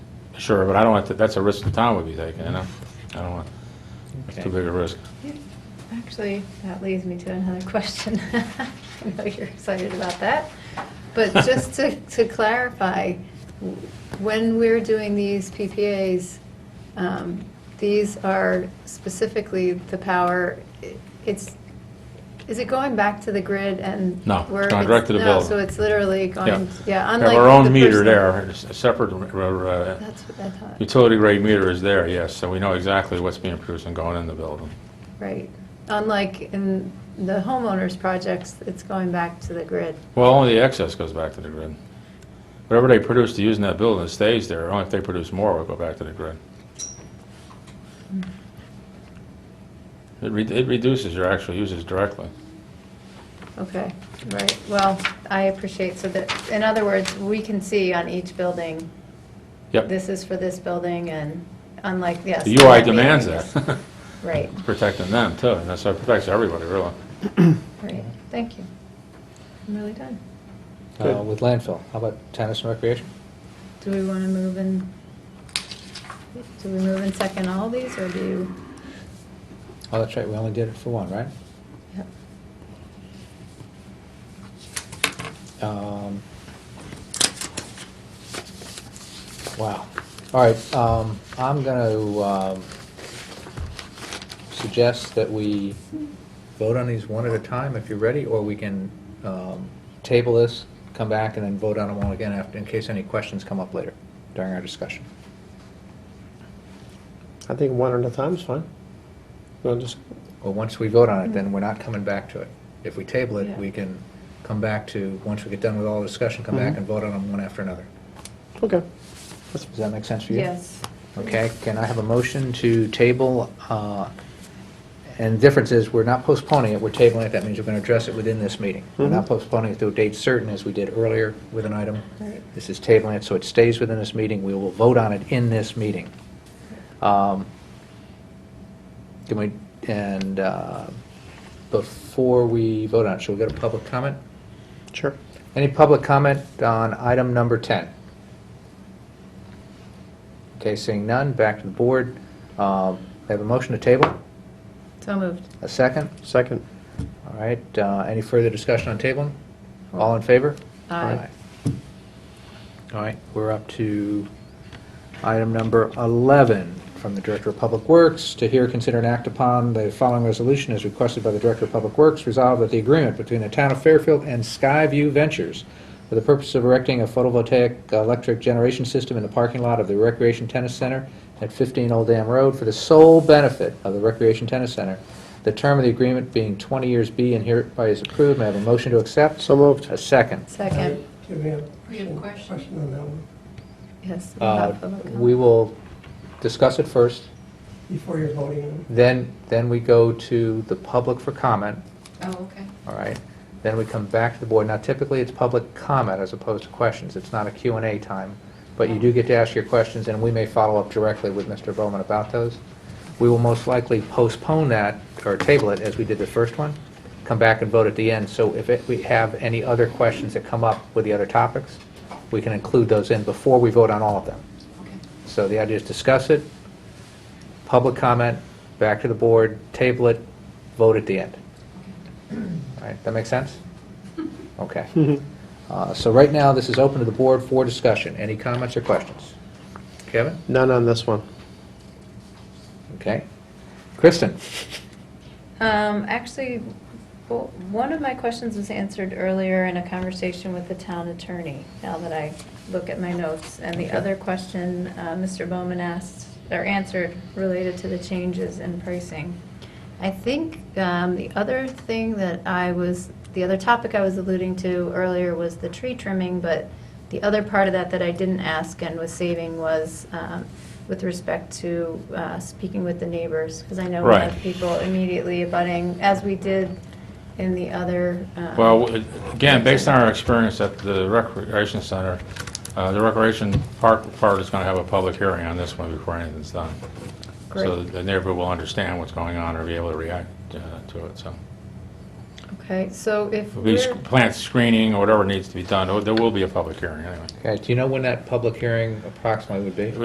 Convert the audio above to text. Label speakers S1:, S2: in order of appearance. S1: Sure, but I don't want to, that's a risk the town would be taking, you know? I don't want, that's
S2: Okay.
S1: too big a risk.
S3: Actually, that leads me to another question. I know you're excited about that. But just to, to clarify, w- when we're doing these PPAs, um, these are specifically the power, i- it's, is it going back to the grid and?
S1: No, it's
S3: we're-
S1: going direct to the
S3: No,
S1: building.
S3: so it's literally going, yeah,
S1: We
S3: unlike.
S1: Have our own
S3: the
S1: meter
S3: personal-
S1: there, it's a separate uh, uh,
S3: That's what I thought,
S1: utility grade meter is there, yes, so we know exactly what's being produced and going in the building.
S3: right. Unlike in the homeowners' projects, it's going back to the grid.
S1: Well, only the excess goes back to the grid. Whatever they produce to use in that building stays there, only if they produce more will go back to the grid. It re- it reduces your actual uses directly.
S3: Okay, right, well, I appreciate, so that, in other words, we can see on each building,
S1: Yep,
S3: this is for this building, and unlike, yes.
S1: the UI
S3: unlike
S1: demands
S3: meetings.
S1: that,
S3: Right,
S1: protecting them too, and that's, it protects everybody, really.
S3: right, thank you. I'm really done.
S2: Uh, With landfill, how about tennis and recreation?
S3: Do we want to move in, do we move in second all these, or do you?
S2: Oh, that's right, we only did it for one, right?
S3: yep.
S2: Um, Wow. All right, um, I'm gonna, um, suggest that we vote on these one at a time if you're ready, or we can, um, table this, come back and then vote on them all again after, in case any questions come up later during our discussion.
S4: I think one at a time's fine. We'll just,
S2: Well, once we vote on it, then we're not coming back to it. If we table it,
S3: Mm-hmm. Yeah.
S2: we can come back to, once we get done with all the discussion, come back
S3: Mm-hmm.
S4: Mhm.
S2: and vote on them one after another.
S4: okay.
S2: Does that make sense for you?
S3: Yes,
S2: Okay, can I have a motion to table, uh, and the difference is, we're not postponing it, we're tabling it, that means we're going to address it within this meeting. We're not
S4: Mhm.
S2: postponing it to a date certain, as we did earlier with an item.
S3: Right.
S2: This is tabling it, so it stays within this meeting, we will vote on it in this meeting. Um, Can we, and uh, before we vote on it, shall we get a public comment?
S4: Sure.
S2: Any public comment on item number 10? Okay, seeing none, back to the board. Um, I Have a motion to table,
S3: so moved.
S2: a second.
S4: Second.
S2: All right, uh, any further discussion on tabling? All in favor?
S3: Aye.
S2: Aye. All right, we're up to item number 11 from the Director of Public Works. To hear, consider, and act upon the following resolution as requested by the Director of Public Works, resolve that the agreement between the Town of Fairfield and Skyview Ventures for the purpose of erecting a photovoltaic electric generation system in the parking lot of the Recreation Tennis Center at 15 Old Dam Road for the sole benefit of the Recreation Tennis Center. The term of the agreement being 20 years be and hereby is approved. May I have a motion to accept?
S4: So moved.
S2: A second.
S3: Second,
S5: Do we have?
S6: We have a question.
S5: on that one,
S3: yes.
S2: Uh,
S3: not public comment.
S2: We will discuss it first,
S5: before you're voting.
S2: then, then we go to the public for comment,
S6: Oh, okay.
S2: all right? Then we come back to the board. Now typically, it's public comment as opposed to questions. It's not a Q and A time, but you do get to ask your questions, and we may follow up directly with Mr. Bowman about those. We will most likely postpone that, or table it, as we did the first one, come back and vote at the end. So if it- we have any other questions that come up with the other topics, we can include those in before we vote on all of them.
S6: Okay.
S2: So the idea is discuss it, public comment, back to the board, table it, vote at the end. All right, that makes sense? Okay. Uh, So right now, this is open to the board for discussion. Any comments or questions? Kevin?
S4: None on this one.
S2: Okay. Kristen?
S3: Um, actually, well, one of my questions was answered earlier in a conversation with the town attorney, now that I look at my notes. And the
S2: Okay.
S3: other question, uh, Mr. Bowman asked, or answered, related to the changes in pricing. I think, um, the other thing that I was, the other topic I was alluding to earlier was the tree trimming, but the other part of that that I didn't ask and was saving was, um, with respect to, uh, speaking with the neighbors, because I know we have
S1: Right.
S3: people immediately abutting, as we did in the other. um,
S1: Well, it- again, based on our experience at the recreation center, uh, the recreation park part is going to have a public hearing on this one before anything's done. So
S3: Great.
S1: the neighborhood will understand what's going on or be able to react uh, to it, so.
S3: Okay, so if
S1: It'll be
S3: we're,
S1: sc- plant screening or Oh, whatever needs to be done, There- there will be a public hearing anyway.
S2: Okay, do you know when that public hearing approximately would be?